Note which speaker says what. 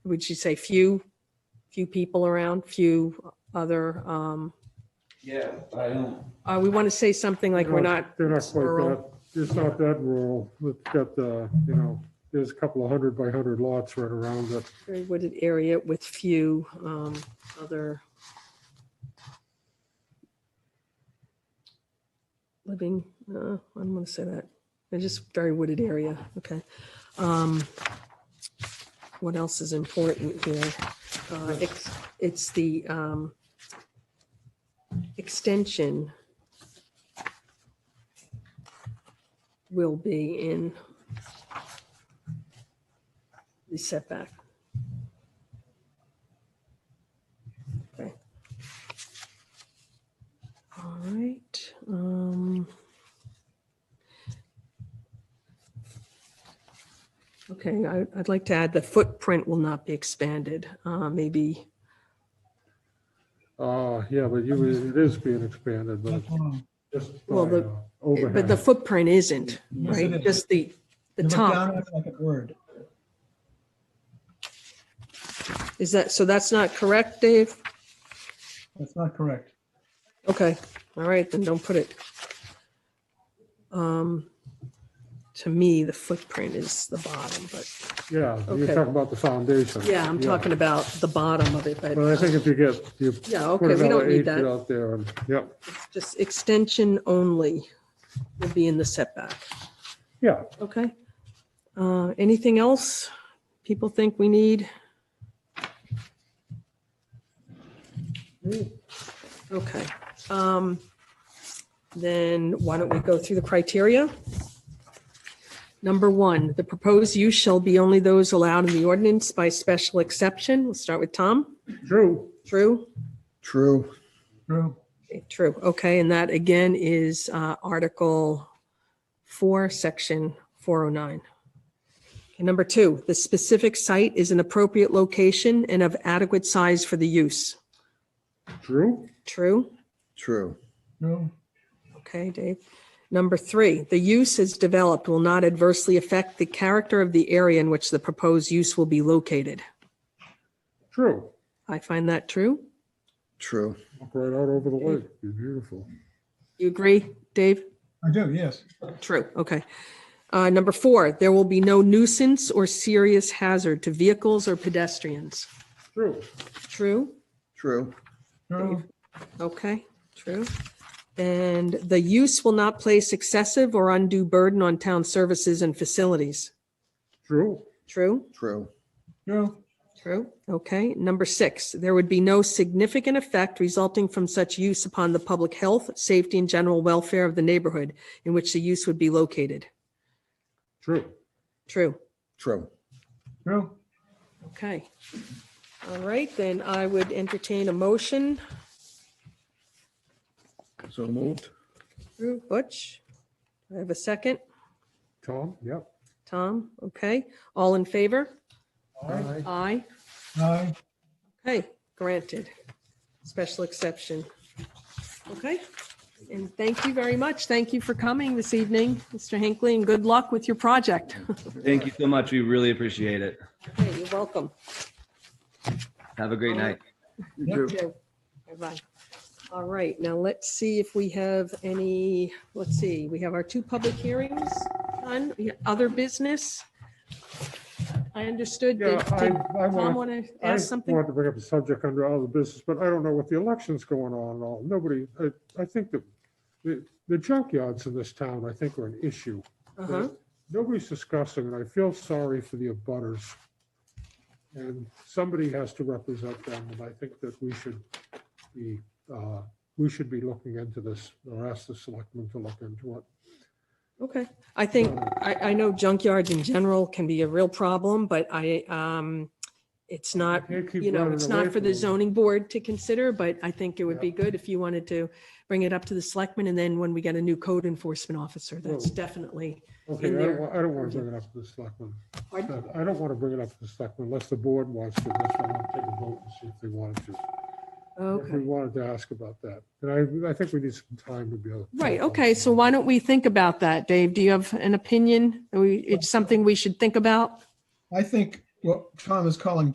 Speaker 1: would you say few, few people around, few other, um,
Speaker 2: Yeah, I don't.
Speaker 1: uh, we want to say something like we're not,
Speaker 3: They're not quite
Speaker 1: rural.
Speaker 3: that, it's not that rural. We've got the, you know, there's a couple of hundred by hundred lots right around it.
Speaker 1: very wooded area with few, um, other living, uh, I'm going to say that. They're just very wooded area. Okay. Um, what else is important here? Uh, it's, it's the, um, extension will be in the setback. Okay. All right, um. Okay, I, I'd like to add the footprint will not be expanded, uh, maybe,
Speaker 3: Uh, yeah, but you, it is being expanded, but just by
Speaker 1: Well, the-
Speaker 3: uh,
Speaker 1: but the
Speaker 3: overhang.
Speaker 1: footprint isn't,
Speaker 4: Yes, it
Speaker 1: right?
Speaker 4: is.
Speaker 1: Just the, the
Speaker 4: You look
Speaker 1: top,
Speaker 4: down at it Like a word.
Speaker 1: is that, so that's not correct, Dave?
Speaker 4: That's not correct.
Speaker 1: Okay, all right, then don't put it. Um, to me, the footprint is the bottom, but
Speaker 3: Yeah, you're
Speaker 1: okay.
Speaker 3: talking about the foundation.
Speaker 1: yeah, I'm talking about the bottom of it, but
Speaker 3: But I think if you get, you
Speaker 1: yeah, okay,
Speaker 3: put
Speaker 1: we
Speaker 3: another
Speaker 1: don't need
Speaker 3: eight feet
Speaker 1: that.
Speaker 3: out there and, yeah,
Speaker 1: Just extension only will be in the setback,
Speaker 3: yeah.
Speaker 1: okay? Uh, anything else people think we need? Okay, um, then why don't we go through the criteria? Number one, the proposed use shall be only those allowed in the ordinance by special exception. We'll start with Tom.
Speaker 3: True.
Speaker 1: True?
Speaker 5: True.
Speaker 4: True.
Speaker 1: True. Okay, and that again is uh, Article 4, Section 409. And number two, the specific site is an appropriate location and of adequate size for the use.
Speaker 3: True?
Speaker 1: True?
Speaker 5: True.
Speaker 4: True.
Speaker 1: Okay, Dave. Number three, the use as developed will not adversely affect the character of the area in which the proposed use will be located.
Speaker 3: True.
Speaker 1: I find that true.
Speaker 5: True.
Speaker 3: Look Right out over the lake. Be beautiful.
Speaker 1: You agree, Dave?
Speaker 4: I do, yes.
Speaker 1: True. Okay. Uh, Number four, there will be no nuisance or serious hazard to vehicles or pedestrians.
Speaker 3: True.
Speaker 1: True?
Speaker 5: True.
Speaker 4: True.
Speaker 1: Okay, true. And the use will not place excessive or undue burden on town services and facilities.
Speaker 3: True.
Speaker 1: True?
Speaker 5: True.
Speaker 4: True.
Speaker 1: True. Okay. Number six, there would be no significant effect resulting from such use upon the public health, safety, and general welfare of the neighborhood in which the use would be located.
Speaker 3: True.
Speaker 1: True.
Speaker 5: True.
Speaker 4: True.
Speaker 1: Okay. All right, then I would entertain a motion.
Speaker 5: So moved.
Speaker 1: Drew, Butch, I have a second.
Speaker 3: Tom? Yep.
Speaker 1: Tom, okay. All in favor?
Speaker 3: Aye.
Speaker 1: Aye.
Speaker 4: Aye.
Speaker 1: Okay, granted. Special exception. Okay, and thank you very much. Thank you for coming this evening, Mr. Hinckley, and good luck with your project.
Speaker 2: Thank you so much. We really appreciate it.
Speaker 1: Okay, you're welcome.
Speaker 2: Have a great night.
Speaker 4: Yep.
Speaker 1: Joe. Bye-bye. All right, now let's see if we have any, let's see, we have our two public hearings on other business. I understood.
Speaker 3: Yeah,
Speaker 1: that
Speaker 3: I,
Speaker 1: did
Speaker 3: I
Speaker 1: Tom
Speaker 3: want,
Speaker 1: want to
Speaker 3: I
Speaker 1: ask something?
Speaker 3: wanted to bring up a subject under other business, but I don't know what the election's going on and all. Nobody, I, I think that the, the junkyards in this town, I think are an issue.
Speaker 1: Uh-huh.
Speaker 3: Nobody's discussing it. I feel sorry for the abutters. And somebody has to represent them, and I think that we should be, uh, we should be looking into this or ask the selectmen to look into it.
Speaker 1: Okay, I think, I, I know junkyards in general can be a real problem, but I, um, it's not,
Speaker 3: Can't keep
Speaker 1: you know,
Speaker 3: running
Speaker 1: it's
Speaker 3: away
Speaker 1: not for
Speaker 3: from
Speaker 1: the
Speaker 3: them.
Speaker 1: zoning board to consider, but I think it would be
Speaker 3: Yeah.
Speaker 1: good if you wanted to bring it up to the selectmen, and then when we get a new code enforcement officer, that's
Speaker 3: Well-
Speaker 1: definitely,
Speaker 3: Okay,
Speaker 1: in
Speaker 3: I don't,
Speaker 1: there.
Speaker 3: wa- I don't want to bring it up to the selectmen.
Speaker 1: Pardon?
Speaker 3: But I don't want to bring it up to the selectmen unless the board wants to. That's why I'll take a vote and see if they wanted to. If
Speaker 1: okay.
Speaker 3: we wanted to ask about that. And I, I think we need some time to be able. to-
Speaker 1: Right, okay, so why don't we think about that, Dave? Do you have
Speaker 3: Uh,
Speaker 1: an opinion? Are we- It's something we should think about?
Speaker 4: I think what Tom is calling